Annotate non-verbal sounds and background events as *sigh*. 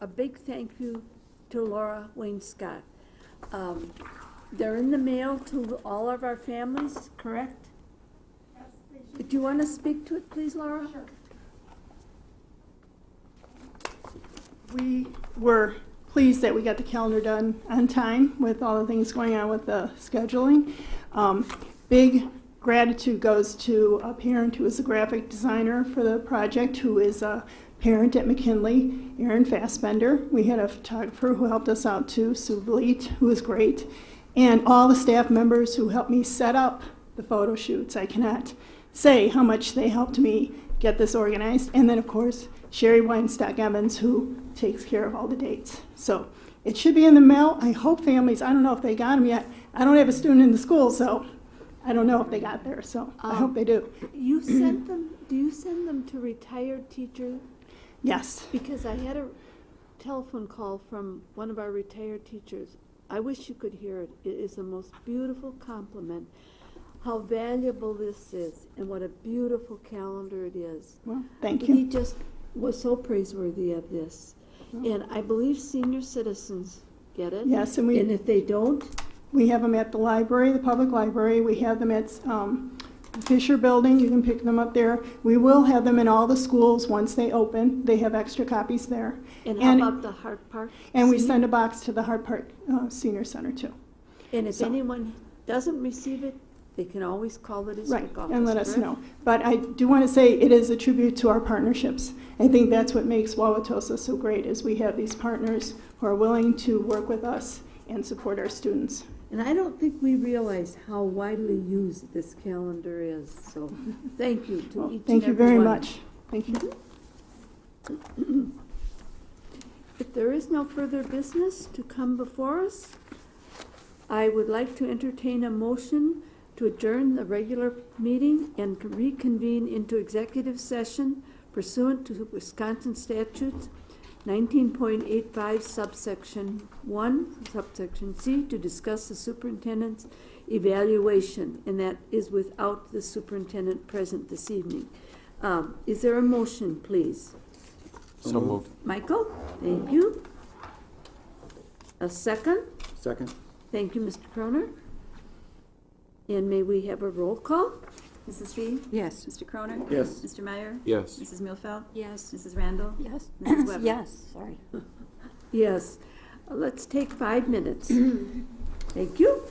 a big thank you to Laura Wayne Scott. Um, They're in the mail to all of our families, correct? Do you want to speak to it, please, Laura? Sure. We were pleased that we got the calendar done on time with all the things going on with the scheduling. Um, Big gratitude goes to a parent who is a graphic designer for the project, who is a parent at McKinley, Erin Fassbender. We had a photographer who helped us out too, Sue Bleet, who was great, and all the staff members who helped me set up the photo shoots. I cannot say how much they helped me get this organized. And then, of course, Sherry Weinstock Evans, who takes care of all the dates. So it should be in the mail. I hope families, I don't know if they got them yet. I don't have a student in the school, so I don't know if they got there. So I hope they do. You sent them, do you send them to retired teachers? Yes. Because I had a telephone call from one of our retired teachers. I wish you could hear it. It is the most beautiful compliment, how valuable this is, and what a beautiful calendar it is. Well, thank He you. just was so praiseworthy of this. And I believe senior citizens get it. Oh. Yes, and And we, if they don't, we have them at the library, the public library. We have them at um, Fisher Building. You can pick them up there. We will have them in all the schools once they open. They have extra copies there. and how about the Hart Park? And we senior? send a box to the Hart Park uh, Senior Center too. And if so- anyone doesn't receive it, they can always call the Right, district office. and let us correct? know. But I do want to say it is a tribute to our partnerships. I think that's what makes Wauwatosa so great is we have these partners who are willing to work with us and support our students. And I don't think we realize how widely used this calendar is, *laughs* so thank you Well, to each and Thank you every very one. much. Thank you. If there is no further business to come before us, I would like to entertain a motion to adjourn the regular meeting and reconvene into executive session pursuant to Wisconsin statutes nineteen point eight five subsection one, subsection C, to discuss the superintendent's evaluation, and that is without the superintendent present this evening. Um, is there a motion, please? So moved. Michael, thank you. A second, Second? thank you, Mr. Croner. And may we have a roll call? Mrs. Fee? Yes. Mr. Croner? Yes. Mr. Meyer? Yes. Mrs. Muehlfeld? Yes. Mrs. Randall? Yes. Mrs. Weber? Yes, sorry. Yes, let's take five minutes. Thank you.